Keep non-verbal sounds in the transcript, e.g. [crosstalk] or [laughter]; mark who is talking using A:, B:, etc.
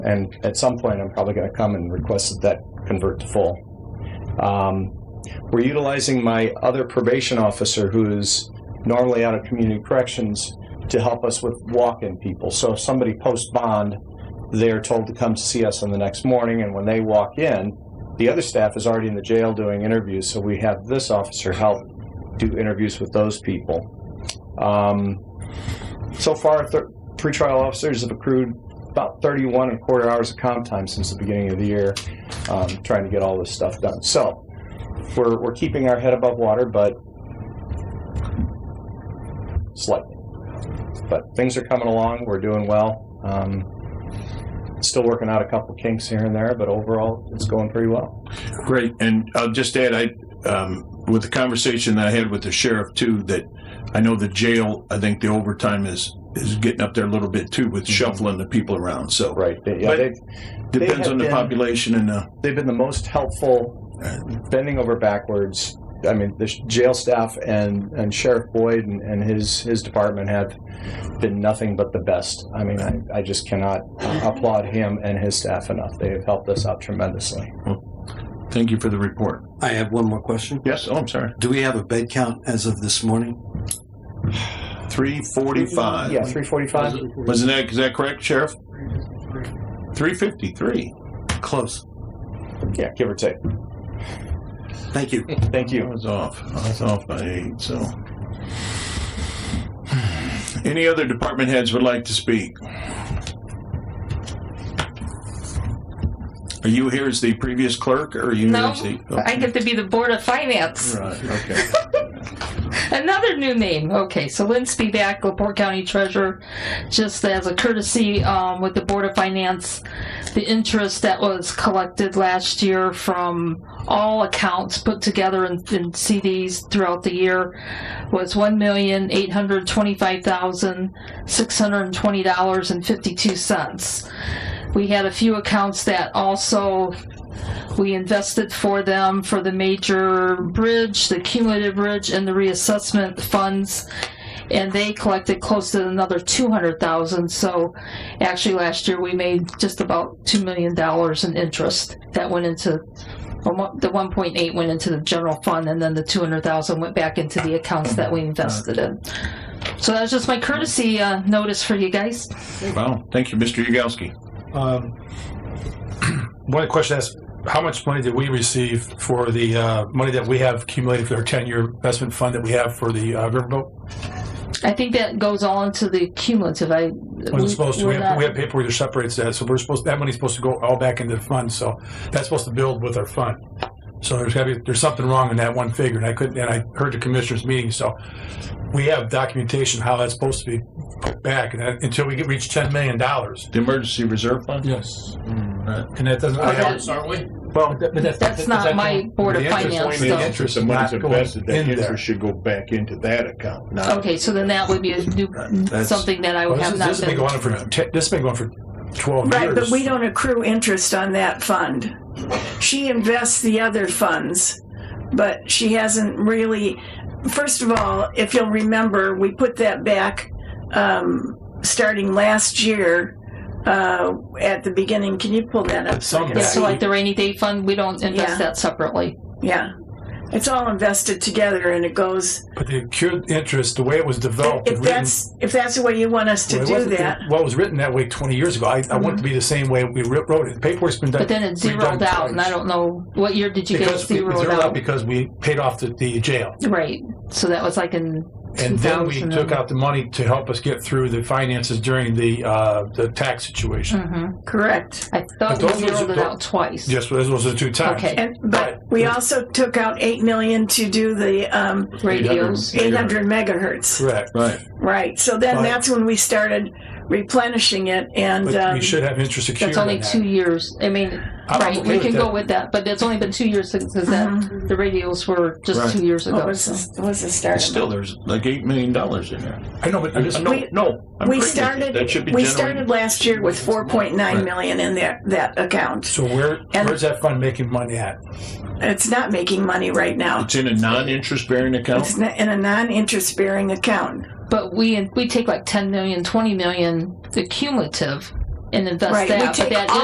A: And at some point, I'm probably going to come and request that that convert to full. Um, we're utilizing my other probation officer who's normally out of community corrections to help us with walk-in people. So if somebody post bond, they're told to come see us on the next morning, and when they walk in, the other staff is already in the jail doing interviews. So we have this officer help do interviews with those people. Um, so far, th- pretrial officers have accrued about 31 and a quarter hours of comp time since the beginning of the year, um, trying to get all this stuff done. So we're, we're keeping our head above water, but slightly. But things are coming along. We're doing well. Um, still working out a couple kinks here and there, but overall, it's going pretty well.
B: Great. And I'll just add, I, um, with the conversation that I had with the sheriff too, that I know the jail, I think the overtime is, is getting up there a little bit too with shuffling the people around. So
A: Mm-hmm. Right. They- yeah,
B: But-
A: they've,
B: depends
A: have
B: on the
A: been-
B: population and uh, the,
A: they've been the most helpful, bending over backwards. I mean, the sh- jail staff and, and Sheriff Boyd and, and his, his department have been nothing but the best. I mean, I, I just cannot applaud him and his staff enough. They have helped us out tremendously.
B: thank you for the report.
C: I have one more question.
B: Yes. Oh, I'm sorry.
C: Do we have a bed count as of this morning?
B: 345.
A: Yeah, 345.
B: Wasn't that, is that correct, Sheriff? 353.
C: Close.
A: Yeah, give or take.
C: Thank you.
A: Thank
B: I
A: you.
B: was off. I was off by eight, so. [sighs] Any other department heads would like to speak? Are you here as the previous clerk, or are you?
D: No,
B: as the-
D: I get to be the Board of Finance.
B: Right, okay.
D: Another new name. Okay, so Lindsay be back, Laporte County Treasurer. Just as a courtesy um, with the Board of Finance, the interest that was collected last year from all accounts put together in, in CDs throughout the year was one million eight hundred twenty-five thousand six hundred twenty dollars and fifty-two cents. We had a few accounts that also we invested for them for the major bridge, the cumulative bridge, and the reassessment funds. And they collected close to another two hundred thousand, so actually last year we made just about two million dollars in interest that went into, well, mo- the one point eight went into the general fund and then the two hundred thousand went back into the accounts that we invested in. So that was just my courtesy, uh, notice for you guys.
B: Wow, thank you, Mr. Yagowski.
E: Um, [clears throat] One question is, how much money did we receive for the uh, money that we have accumulated for our 10-year investment fund that we have for the uh, riverboat?
D: I think that goes on to the cumulative, I.
E: Wasn't supposed to,
D: we're
E: we have
D: not-
E: we have paperwork that separates that, so we're supposed, that money's supposed to go all back into the fund, so that's supposed to build with our fund. So there's gotta be, there's something wrong in that one figure, and I couldn't, and I heard the commissioners' meeting, so we have documentation how that's supposed to be put back, and that- until we get, reach $10 million.
B: The Emergency Reserve Fund?
E: Yes. Uh,
B: Right.
E: And that doesn't, I have,
F: aren't we?
E: Hmm. well, but that's.
D: That's not my Board of
E: The interest
D: Finance,
E: only-
D: though.
E: the interest is not going in there.
B: should go back into that account,
D: Okay, so then that would be a new,
B: That's-
D: something that I
E: Well,
D: would
E: this
D: have
E: is-
D: not
E: this has been
D: been.
E: going on for te- this has been going for twelve
G: Right,
E: years.
G: but we don't accrue interest on that fund. She invests the other funds, but she hasn't really. First of all, if you'll remember, we put that back um, starting last year uh, at the beginning. Can you pull that up?
E: Some
G: I can
D: Yeah,
E: back.
G: see?
D: so like the rainy day fund, we don't
G: Yeah.
D: invest that separately.
G: Yeah. It's all invested together, and it goes.
E: But the accrued interest, the way it was developed,
G: If
E: and written-
G: that's if that's the way you want us to
E: Oh, well, it
G: do
E: wasn't the-
G: that,
E: well, it was written that way twenty years ago. I, I want it to be the same way we writ- wrote it. The paperwork's been done.
D: But then it
E: we've done
D: zeroed out, and I
E: twice.
D: don't know, what year did you get
E: because we we
D: zeroed
E: zeroed out
D: out?
E: because we paid off the, the jail,
D: Right, so that was like in
E: and then we
D: 2000
E: took out the money to help us get through the finances during the uh, the tax situation.
D: Mhm.
G: correct.
D: I
E: But
D: thought we
E: those were-
D: zeroed it
E: tho-
D: out twice.
E: Yes, well, those was the two times.
D: Okay,
G: And but we also took out eight million to do the um,
D: radios.
G: 800 megahertz.
E: Correct.
B: Right,
G: Right. So then
E: Right.
G: that's when we started replenishing it. And
E: But
G: um,
E: we should have interest secured.
D: That's only
E: on that.
D: two years, I mean,
E: I'm
D: right,
E: okay
D: we
E: with
D: can
E: that.
D: go with that, but it's only been two years since since that, the radios were
B: Right.
D: just two years
G: what
D: ago.
G: was,
D: so.
G: Uh-huh. Oh, this, what was the
B: But
G: start?
B: still, there's like $8 million in there.
E: I know, but I'm just,
B: No,
G: We-
B: no. I'm
G: we
B: agreeing with you.
G: started-
B: That should be
G: we
B: generated-
G: started last year with 4.9
B: Right.
G: million in that, that account.
E: so where
G: And-
E: where's that fund making money at?
G: It's not making money right now.
B: It's in a non-interest bearing account?
G: It's not in a non-interest bearing account.
D: But we we take like 10 million, 20 million, the cumulative
G: and invest
D: Right, we
G: that. but
D: take
G: that